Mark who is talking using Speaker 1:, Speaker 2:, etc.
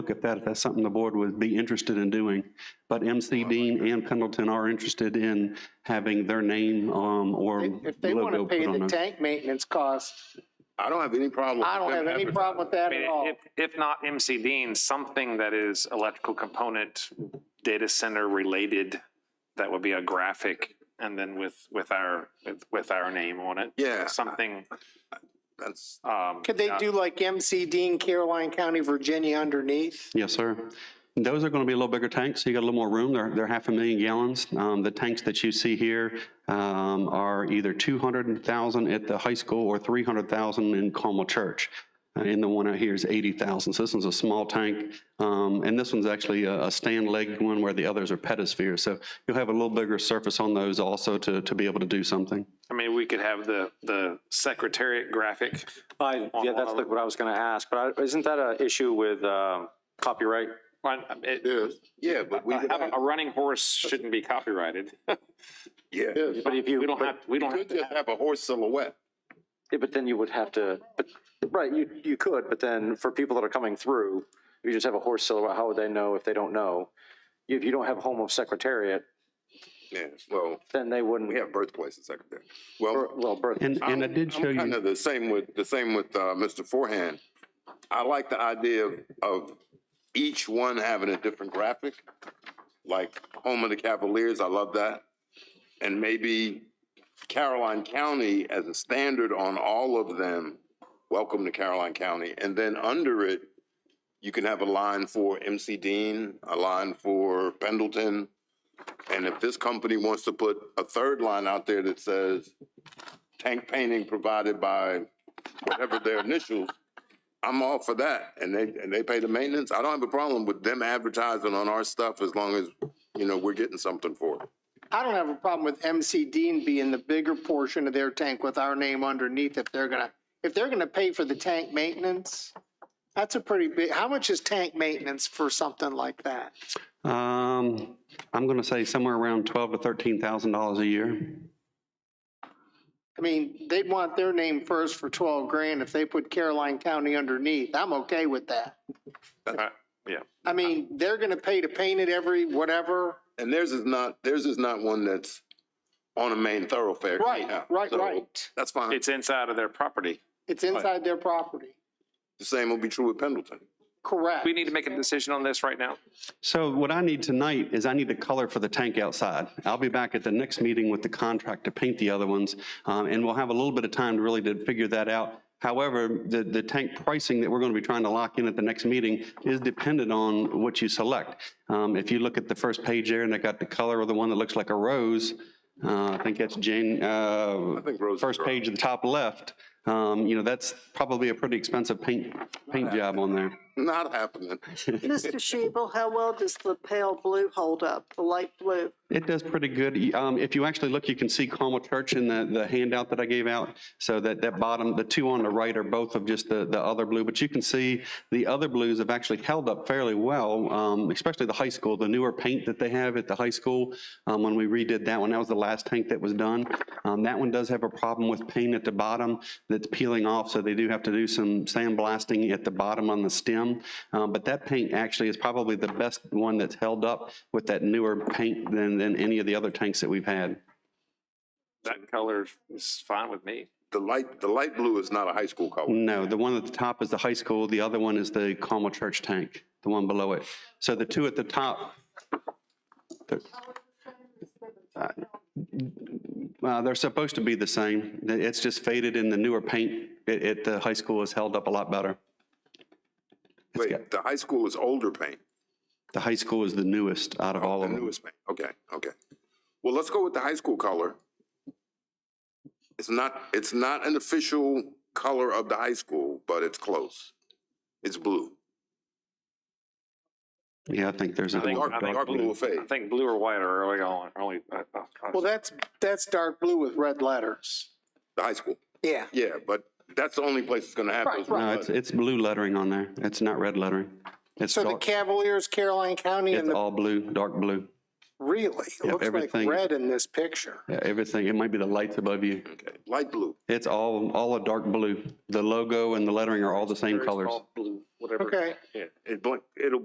Speaker 1: look at that, if that's something the board would be interested in doing. But MC Dean and Pendleton are interested in having their name um, or
Speaker 2: If they want
Speaker 1: logo
Speaker 2: to pay
Speaker 1: put on
Speaker 2: the
Speaker 1: it.
Speaker 2: tank maintenance cost,
Speaker 3: I don't have any problem. with
Speaker 2: I don't
Speaker 3: them
Speaker 2: have any
Speaker 3: advertising.
Speaker 2: problem with that
Speaker 4: I mean,
Speaker 2: at all.
Speaker 4: If, if not MC Dean, something that is electrical component, data center related, that would be a graphic and then with, with our, with, with our name on it.
Speaker 3: Yeah.
Speaker 4: Something,
Speaker 3: That's,
Speaker 4: um.
Speaker 2: Could they
Speaker 4: uh,
Speaker 2: do like MC Dean, Caroline County, Virginia underneath?
Speaker 1: Yes, sir. And Those are going to be a little bigger tanks, so you got a little more room. They're, they're half a million gallons. Um, The tanks that you see here um, are either 200,000 at the high school or 300,000 in Carmel Church. Uh, And the one out here is 80,000, so this one's a small tank. Um, And this one's actually a a stand leg one where the others are pedospheres. So you'll have a little bigger surface on those also to, to be able to do something.
Speaker 4: I mean, we could have the, the secretariat graphic.
Speaker 5: I, yeah, that's like what I was gonna ask, but I- isn't that a issue with um, copyright?
Speaker 4: Well, it-
Speaker 3: yes, yeah, but we,
Speaker 4: A a running horse shouldn't be copyrighted.
Speaker 3: yeah.
Speaker 5: But if you,
Speaker 4: We don't have, we
Speaker 3: You
Speaker 4: don't have
Speaker 3: could just have a horse silhouette.
Speaker 5: yeah, but then you would have to, but, right, you, you could, but then for people that are coming through, if you just have a horse silhouette, how would they know if they don't know? If you don't have Home of Secretariat,
Speaker 3: Yeah, well,
Speaker 5: then they
Speaker 3: we
Speaker 5: wouldn't,
Speaker 3: have birthplaces like that. Well,
Speaker 5: or- well, birth.
Speaker 1: And, and I
Speaker 3: I'm-
Speaker 1: did show
Speaker 3: I'm kind
Speaker 1: you,
Speaker 3: of the same with, the same with, uh, Mr. Forehand. I like the idea of, of each one having a different graphic, like Home of the Cavaliers, I love that. And maybe Caroline County as a standard on all of them, welcome to Caroline County. And then under it, you can have a line for MC Dean, a line for Pendleton. And if this company wants to put a third line out there that says, tank painting provided by whatever their initials, I'm all for that. And they, and they pay the maintenance. I don't have a problem with them advertising on our stuff as long as, you know, we're getting something for it.
Speaker 2: I don't have a problem with MC Dean being the bigger portion of their tank with our name underneath if they're gonna, if they're gonna pay for the tank maintenance. That's a pretty big, how much is tank maintenance for something like that?
Speaker 1: um, I'm going to say somewhere around 12 to $13,000 a year.
Speaker 2: I mean, they'd want their name first for twelve grand. If they put Caroline County underneath, I'm okay with that.
Speaker 4: to.
Speaker 2: I mean, they're gonna pay to paint it every whatever.
Speaker 3: And theirs is not, theirs is not one that's on a main thoroughfare.
Speaker 2: Right,
Speaker 3: Yeah.
Speaker 2: right,
Speaker 3: So
Speaker 2: right.
Speaker 3: That's fine.
Speaker 4: It's inside of their property.
Speaker 2: It's inside their property.
Speaker 3: The same will be true with Pendleton.
Speaker 2: Correct.
Speaker 4: We need to make a decision on this right now.
Speaker 1: So what I need tonight is I need the color for the tank outside. I'll be back at the next meeting with the contract to paint the other ones, um, and we'll have a little bit of time to really to figure that out. However, the, the tank pricing that we're going to be trying to lock in at the next meeting is dependent on what you select. Um, If you look at the first page there, and they got the color of the one that looks like a rose, uh, I think that's Jane, uh,
Speaker 3: I think Rose. is
Speaker 1: first
Speaker 3: right.
Speaker 1: page at the top left, um, you know, that's probably a pretty expensive paint, paint job on there.
Speaker 3: Not happening.
Speaker 6: Mr. Shebel, how well does the pale blue hold up, the light blue?
Speaker 1: It does pretty good. Um, If you actually look, you can see Carmel Church in the, the handout that I gave out. So that, that bottom, the two on the right are both of just the, the other blue. But you can see the other blues have actually held up fairly well, um, especially the high school, the newer paint that they have at the high school. um, When we redid that one, that was the last tank that was done. Um, That one does have a problem with paint at the bottom that's peeling off. So they do have to do some sandblasting at the bottom on the stem. Um, But that paint actually is probably the best one that's held up with that newer paint than, than any of the other tanks that we've had.
Speaker 4: That color is fine with me.
Speaker 3: The light, the light blue is not a high school color.
Speaker 1: No, the one at the top is the high school, the other one is the Carmel Church tank, the one below it. So the two at the top. they're- Uh, They're supposed to be the same. It's just faded in the newer paint at, at the high school is held up a lot better.
Speaker 3: Wait, the high school is older paint.
Speaker 1: The high school is the newest out of all
Speaker 3: The
Speaker 1: of them.
Speaker 3: newest man. Okay, okay. Well, let's go with the high school color. It's not, it's not an official color of the high school, but it's close. It's blue.
Speaker 1: Yeah, I think there's a
Speaker 4: I think-
Speaker 1: dark
Speaker 4: I think
Speaker 1: dark
Speaker 3: Dark blue
Speaker 1: blue.
Speaker 3: will fade.
Speaker 4: I think blue or white are early on, early. uh, uh, uh,
Speaker 2: Well, that's, that's dark blue with red letters.
Speaker 3: The high school,
Speaker 2: Yeah.
Speaker 3: yeah, but that's the only place it's gonna have
Speaker 2: Right,
Speaker 3: those.
Speaker 2: right.
Speaker 1: No, it's, it's blue lettering on there. It's not red lettering. It's
Speaker 2: So the
Speaker 1: dark,
Speaker 2: Cavaliers, Caroline County
Speaker 1: it's
Speaker 2: and the,
Speaker 1: all blue, dark blue.
Speaker 2: really, it
Speaker 1: Yep,
Speaker 2: looks like
Speaker 1: everything-
Speaker 2: red in this picture.
Speaker 1: Yeah, Everything, it might be the lights above you.
Speaker 3: Okay, light blue.
Speaker 1: It's all, all a dark blue. The logo and the lettering are all the same colors.
Speaker 4: Blue, whatever
Speaker 7: whatever.
Speaker 2: Okay.
Speaker 7: Yeah.
Speaker 3: It blink, it'll